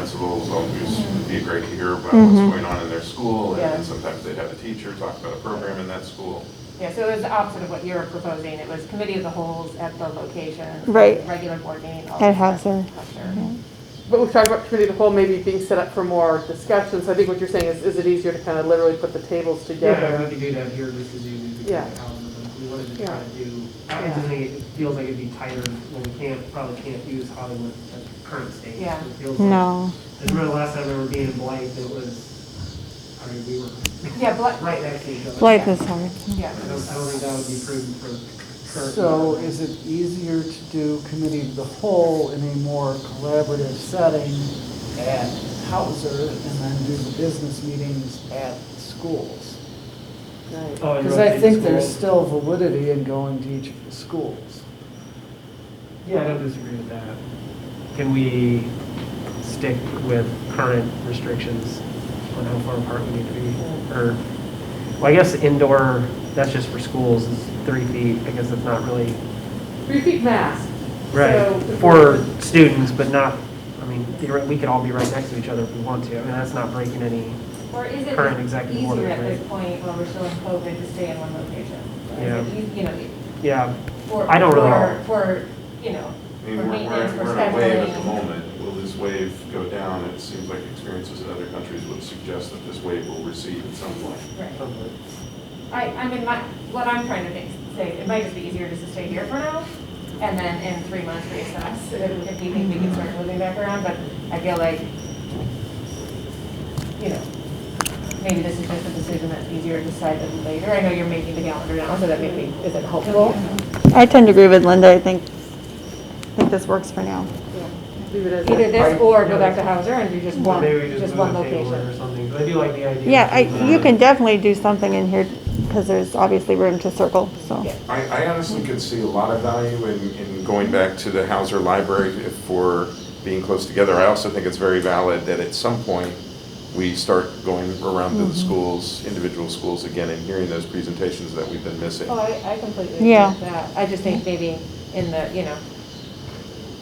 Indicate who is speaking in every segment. Speaker 1: principals always would be great to hear about what's going on in their school, and
Speaker 2: Mm-hmm. Yeah.
Speaker 1: then sometimes they'd have a teacher talk about a program in that school.
Speaker 2: Yeah, so it was the opposite of what you were proposing. It was committee of the wholes at the location.
Speaker 3: Right.
Speaker 2: Regular board meeting. all
Speaker 3: At
Speaker 2: that
Speaker 3: Hauser.
Speaker 2: stuff, sure.
Speaker 4: But we've talked about committee of the whole maybe being set up for more discussions. I think what you're saying is, is it easier to kind of literally put the tables
Speaker 5: Yeah,
Speaker 4: together?
Speaker 5: we could do that here just as you did the
Speaker 4: Yeah.
Speaker 5: calendar, but we wanted to try
Speaker 4: Yeah.
Speaker 5: to do, not
Speaker 4: Yeah.
Speaker 5: doing it, it feels like it'd be tighter when we can't, probably can't use Hollywood at the current stage.
Speaker 2: Yeah.
Speaker 5: It feels like-
Speaker 3: No.
Speaker 5: I remember last time we were being in Blythe, it was, I mean, we were
Speaker 2: Yeah, Blythe,
Speaker 5: right next to each other.
Speaker 3: Life is hard.
Speaker 2: yeah.
Speaker 5: I don't, I don't think that would be prudent for current.
Speaker 6: So is it easier to do committee of the whole in a more collaborative setting at Hauser and then do the business meetings at schools?
Speaker 5: Oh, and
Speaker 6: Because I
Speaker 5: rotate
Speaker 6: think there's
Speaker 5: schools.
Speaker 6: still validity in going to each of the schools.
Speaker 5: Yeah, I don't disagree with that. Can we stick with current restrictions on how far apart we need to be? Or, well, I guess indoor, that's just for schools, is three feet, I guess that's not really,
Speaker 4: Three feet mask.
Speaker 5: right,
Speaker 4: So-
Speaker 5: for students, but not, I mean, theoret- we could all be right next to each other if we want to. I mean, that's not breaking any,
Speaker 2: Or is it
Speaker 5: Current executive order,
Speaker 2: easier at
Speaker 5: right.
Speaker 2: this point when we're still in COVID to stay in one location? Is it
Speaker 5: Yeah.
Speaker 2: eas- You know,
Speaker 5: yeah,
Speaker 2: for.
Speaker 5: I don't really
Speaker 2: for-
Speaker 5: know.
Speaker 2: For, you know,
Speaker 1: I mean,
Speaker 2: for
Speaker 1: we're, we're
Speaker 2: maintenance,
Speaker 1: in-
Speaker 2: for
Speaker 1: we're in a wave at the
Speaker 2: scheduling.
Speaker 1: moment. Will this wave go down? It seems like experiences in other countries would suggest that this wave will recede at some point.
Speaker 2: Right.
Speaker 5: probably.
Speaker 2: I, I mean, my, what I'm trying to think, say, it might just be easier just to stay here for now, and then in three months reassess, if if we think we can start moving back around, but I feel like, you know, maybe this is just a decision that's easier to decide than later, I know you're making the calendar now, so that maybe isn't helpful.
Speaker 3: I tend to agree with Linda. I think, I think this works for now.
Speaker 4: Leave it as
Speaker 2: Either
Speaker 4: is.
Speaker 2: this or go back to Hauser and do just one,
Speaker 5: Maybe we just
Speaker 2: just one
Speaker 5: move the table
Speaker 2: location.
Speaker 5: or something, but I do like the idea. uh,
Speaker 3: Yeah, I, you can definitely do something in here because there's obviously room to circle, so.
Speaker 2: Yeah.
Speaker 1: I, I honestly could see a lot of value in, in going back to the Hauser Library for being close together. I also think it's very valid that at some point, we start going around to
Speaker 2: Mm-hmm.
Speaker 1: the schools, individual schools again, and hearing those presentations that we've been missing.
Speaker 2: Oh, I, I completely agree
Speaker 3: Yeah.
Speaker 2: with that. I just think maybe in the, you know,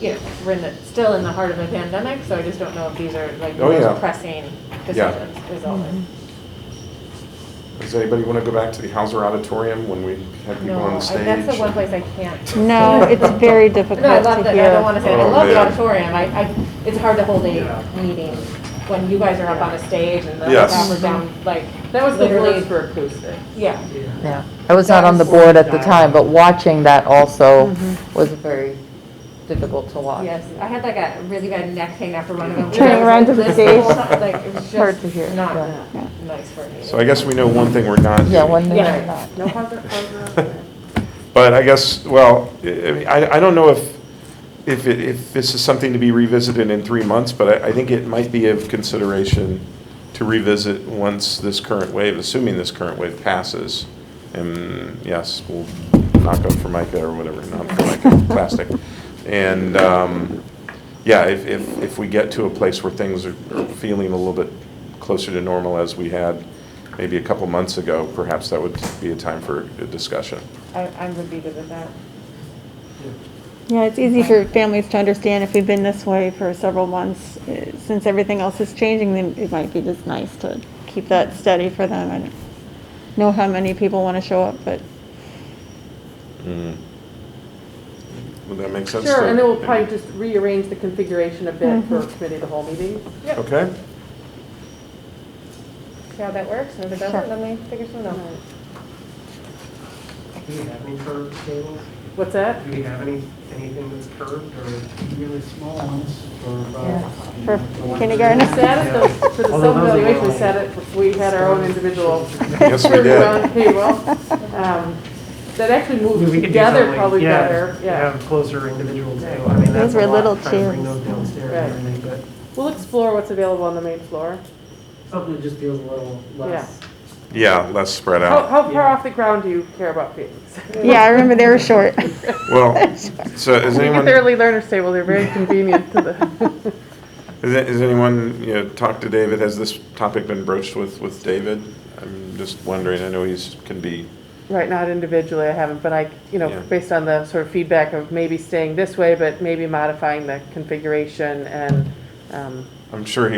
Speaker 2: you know, we're in the, still in the heart of a pandemic, so I just don't know if these are like the
Speaker 1: Oh, yeah.
Speaker 2: most pressing
Speaker 1: Yeah.
Speaker 2: decisions is all.
Speaker 3: Mm-hmm.
Speaker 2: it-
Speaker 1: Does anybody want to go back to the Hauser Auditorium when we have people
Speaker 2: No,
Speaker 1: on
Speaker 2: I-
Speaker 1: the stage?
Speaker 2: that's the one place I can't.
Speaker 3: No, it's very difficult
Speaker 2: No, I love
Speaker 3: to
Speaker 2: that, I don't
Speaker 3: hear.
Speaker 2: wanna say, I
Speaker 1: Oh,
Speaker 2: love the
Speaker 1: man.
Speaker 2: auditorium. I, I, it's hard to hold
Speaker 5: Yeah.
Speaker 2: a meeting when you guys are up on a stage and the
Speaker 1: Yes.
Speaker 2: staff are down, like,
Speaker 4: That was the
Speaker 2: literally,
Speaker 4: first for acoustic.
Speaker 2: yeah.
Speaker 5: Yeah.
Speaker 7: Yeah, I was not on the board at the time, but watching that also was very difficult to watch.
Speaker 2: Yes, I had like a really bad neck pain after one of them.
Speaker 3: Turning around to the
Speaker 2: This
Speaker 3: stage.
Speaker 2: whole time, Like, it was
Speaker 3: Hard to hear,
Speaker 2: just not
Speaker 3: yeah.
Speaker 2: nice for me.
Speaker 1: So I guess we know one thing we're not doing.
Speaker 7: Yeah, one thing
Speaker 2: Yeah.
Speaker 7: or not.
Speaker 4: No Hauser, Hauser on there.
Speaker 1: But I guess, well, I- I, mean, I I don't know if, if, it- if this is something to be revisited in three months, but I, I think it might be of consideration to revisit once this current wave, assuming this current wave passes. And yes, we'll knock on formica or whatever, not formica, plastic. And, um, yeah, if, if, if we get to a place where things are are feeling a little bit closer to normal as we had maybe a couple months ago, perhaps that would be a time for a discussion.
Speaker 2: I, I would be good with that.
Speaker 3: Yeah, it's easy for families to understand if we've been this way for several months, eh, since everything else is changing, then it might be just nice to keep that steady for them and know how many people want to show up, but
Speaker 1: Mm. Would that make sense?
Speaker 4: Sure,
Speaker 1: to-
Speaker 4: and then we'll probably just rearrange the configuration a bit for committee of the whole meeting.
Speaker 1: Okay,
Speaker 2: See how that works, and if it doesn't, then we figure something out.
Speaker 5: Do we have any curved tables?
Speaker 4: What's that?
Speaker 5: Do we have any, anything that's curved or?
Speaker 6: Really small ones for
Speaker 5: uh,
Speaker 6: about
Speaker 3: for
Speaker 4: We
Speaker 3: kindergarten.
Speaker 4: sat at the, for the
Speaker 5: Although those are
Speaker 4: self-evaluation, we
Speaker 5: really-
Speaker 4: sat at, we had our own individual.
Speaker 1: yes, we did.
Speaker 4: did. um, That actually moved
Speaker 5: We could do
Speaker 4: together
Speaker 5: something,
Speaker 4: probably
Speaker 5: yeah,
Speaker 4: better, yeah.
Speaker 5: Have closer individual table, I mean, that's
Speaker 3: were
Speaker 5: a lot,
Speaker 3: little
Speaker 5: trying to bring
Speaker 3: chairs.
Speaker 5: those downstairs
Speaker 4: Right.
Speaker 5: and everything,
Speaker 4: We'll explore what's available on the main floor.
Speaker 5: but something that just feels a little less.
Speaker 1: Yeah, less spread
Speaker 4: How,
Speaker 1: out.
Speaker 4: how far
Speaker 5: Yeah.
Speaker 4: off the ground do you care about feelings?
Speaker 3: Yeah, I remember they were short.
Speaker 4: Oh.
Speaker 1: Well, so is anyone,
Speaker 4: The early learners table, they're very convenient to the,
Speaker 1: is it- is anyone, you know, talked to David? Has this topic been broached with, with David? I'm just wondering, I know he's, can be,
Speaker 4: right, not individually, I haven't, but I, you know,
Speaker 1: Yeah.
Speaker 4: based on the sort of feedback of maybe staying this way, but maybe modifying the configuration and
Speaker 7: um,
Speaker 1: I'm sure he